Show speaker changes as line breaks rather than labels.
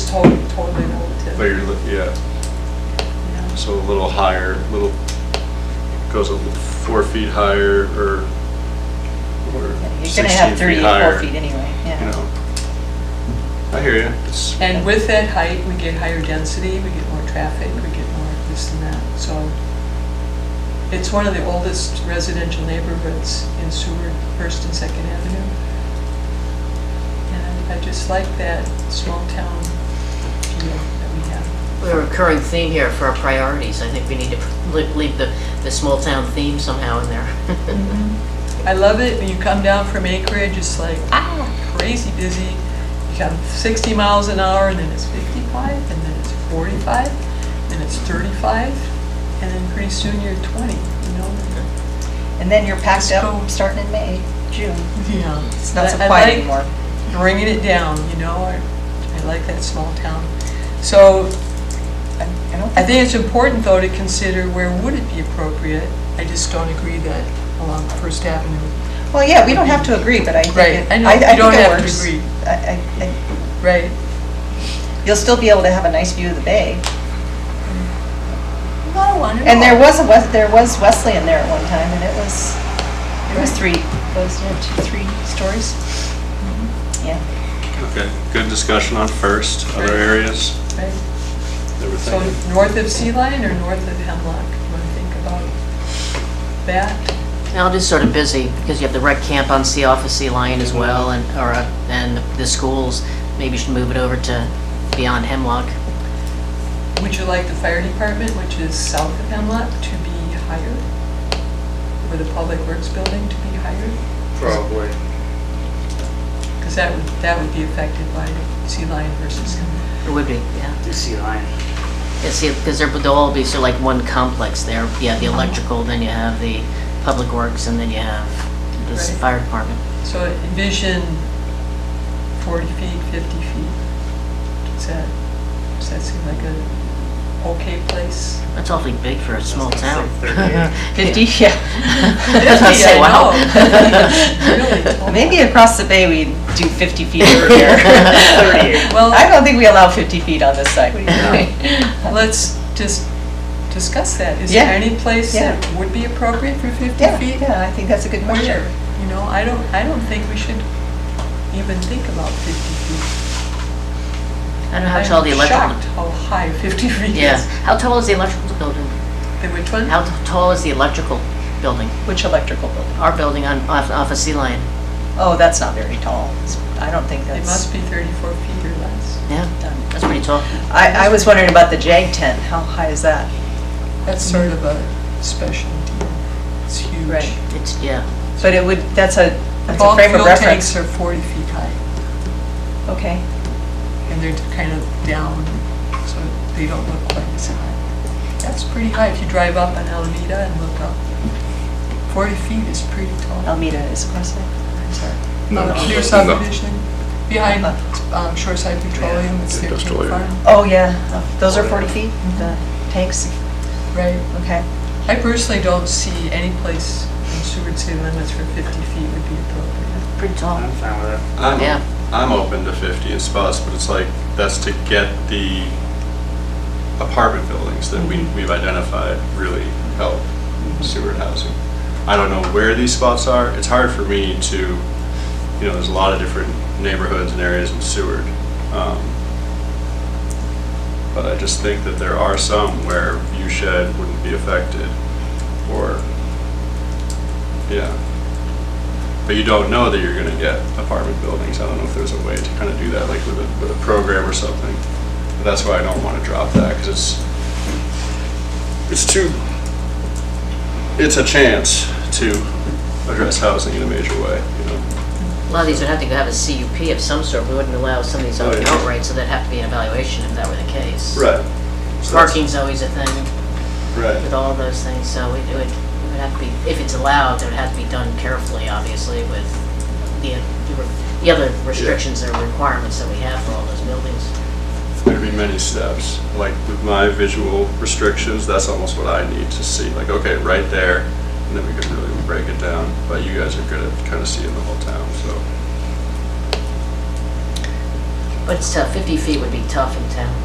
totally, totally relative.
But you're, li- yeah,
Yeah.
so a little higher, little, goes a little four feet higher or, or
You're
sixteen
gonna have three
feet
to four
higher.
feet anyway,
You
yeah.
know, I hear you. It's,
And with that height, we get higher density, we get more traffic, we get more this and that, so. It's one of the oldest residential neighborhoods in Seward, First and Second Avenue. And I just like that small town feel that we have.
We have a recurring theme here for our priorities. I think we need to li- leave the, the small town theme somehow in
Mm-hmm.
there.
I love it when you come down from Anchorage, it's like, ah, crazy busy. You come 60 miles an hour, and then it's 55, and then it's 45, then it's 35, and then pretty soon you're 20, you know?
And then you're packed
Let's
up
go.
starting in May, June.
Yeah.
It's not so
I- I
quiet
like
anymore.
Bringing it down, you know, I I like that small town. So
I I don't
I think it's important, though, to consider where would it be appropriate? I just don't agree that along First Avenue.
Well, yeah, we don't have to agree, but I think.
Right,
it-
I know,
I
you
think
don't
it
have to
works.
agree.
I- I- I-
Right.
You'll still be able to have a nice view of the bay.
Not a one at
And there
all.
was a, Wes- there was Wesleyan there at one time, and it was, it was three, was it two, three stories?
Mm-hmm.
Yeah.
okay, good discussion on first, other
Right.
areas
Right.
that we're
So
thinking.
north of Sea Lion or north of Hemlock? You want to think about that?
Now, just sort of busy because you have the rec camp on Sea Off of Sea Lion as well and, or, uh, and the schools. Maybe you should move it over to beyond Hemlock.
Would you like the fire department, which is south of Hemlock, to be higher? Or the public works building to be higher?
Probably.
Because that would, that would be affected by Sea Lion versus Hemlock.
It would be, yeah.
The sea lion.
Yeah, see, because there, they'll all be sort of like one complex there. You have the
Mm-hmm.
electrical, then you have the public works, and then you have this
Right.
fire department.
So envision 40 feet, 50 feet. Does that, does that seem like a okay place?
That's awfully big for a small
That's
town.
like 38.
Fifty, yeah.
I
Say, wow.
know. Really tall.
Maybe across the bay, we do 50 feet over here.
Well-
I don't think we allow 50 feet on this side.
Let's just discuss that. Is
Yeah.
there any place
Yeah.
that would be appropriate for 50
Yeah,
feet?
yeah, I think that's a good measure.
Where? You know, I don't, I don't think we should even think about 50 feet.
I don't know how tall the
I'm shocked
electrical,
how high 50 feet
yeah,
is.
how tall is the electrical building?
The which one?
How t- tall is the electrical building?
Which electrical building?
Our building on, off, off of Sea Lion,
Oh, that's not very tall. It's- I don't think
It
that's
must be 34 feet or less.
yeah,
done.
that's pretty tall.
I, I was wondering about the JAG tent. How high is that?
That's sort of a special deal. It's huge.
Right.
It's, yeah,
But it would, that's a,
The
that's a
bulk
frame of
fuel tanks
reference.
are 40 feet high,
Okay.
and they're kind of down, so they don't look quite as high. That's pretty high if you drive up on Alameda and look up. 40 feet is pretty tall.
Almeda is across there. I'm sorry.
Um, Clear subdivision, behind um, Shoreside Petroleum, it's their
Industrial
farm.
area.
Oh, yeah. Those are 40 feet,
Mm-hmm.
the tanks?
Right.
Okay.
I personally don't see any place in Seward city limits for 50 feet would be appropriate.
pretty tall.
I'm fine with it.
I'm,
Yeah.
I'm open to 50 in spots, but it's like, that's to get the apartment buildings that we, we've identified really help Seward housing. I don't know where these spots are. It's hard for me to, you know, there's a lot of different neighborhoods and areas in Seward. um, But I just think that there are some where view shed wouldn't be affected or, yeah. But you don't know that you're gonna get apartment buildings. I don't know if there's a way to kind of do that, like with a, with a program or something. But That's why I don't want to drop that, because it's, it's too, it's a chance to address housing in a major way, you know?
A lot of these would have to have a CUP of some sort, we wouldn't allow some of these
Oh,
out-
yeah.
outright, so that'd have to be an evaluation if that were the case.
Right. So that's-
Parking's always a thing with
Right,
all those things, so it would, it would have to be, if it's allowed, it would have to be done carefully, obviously, with the, the other restrictions or requirements that we have for all those buildings.
there'd be many steps. Like with my visual restrictions, that's almost what I need to see, like, okay, right there, and then we could really break it down. But you guys are good at kind of seeing the whole town, so.
But it's tough, 50 feet would be tough in town.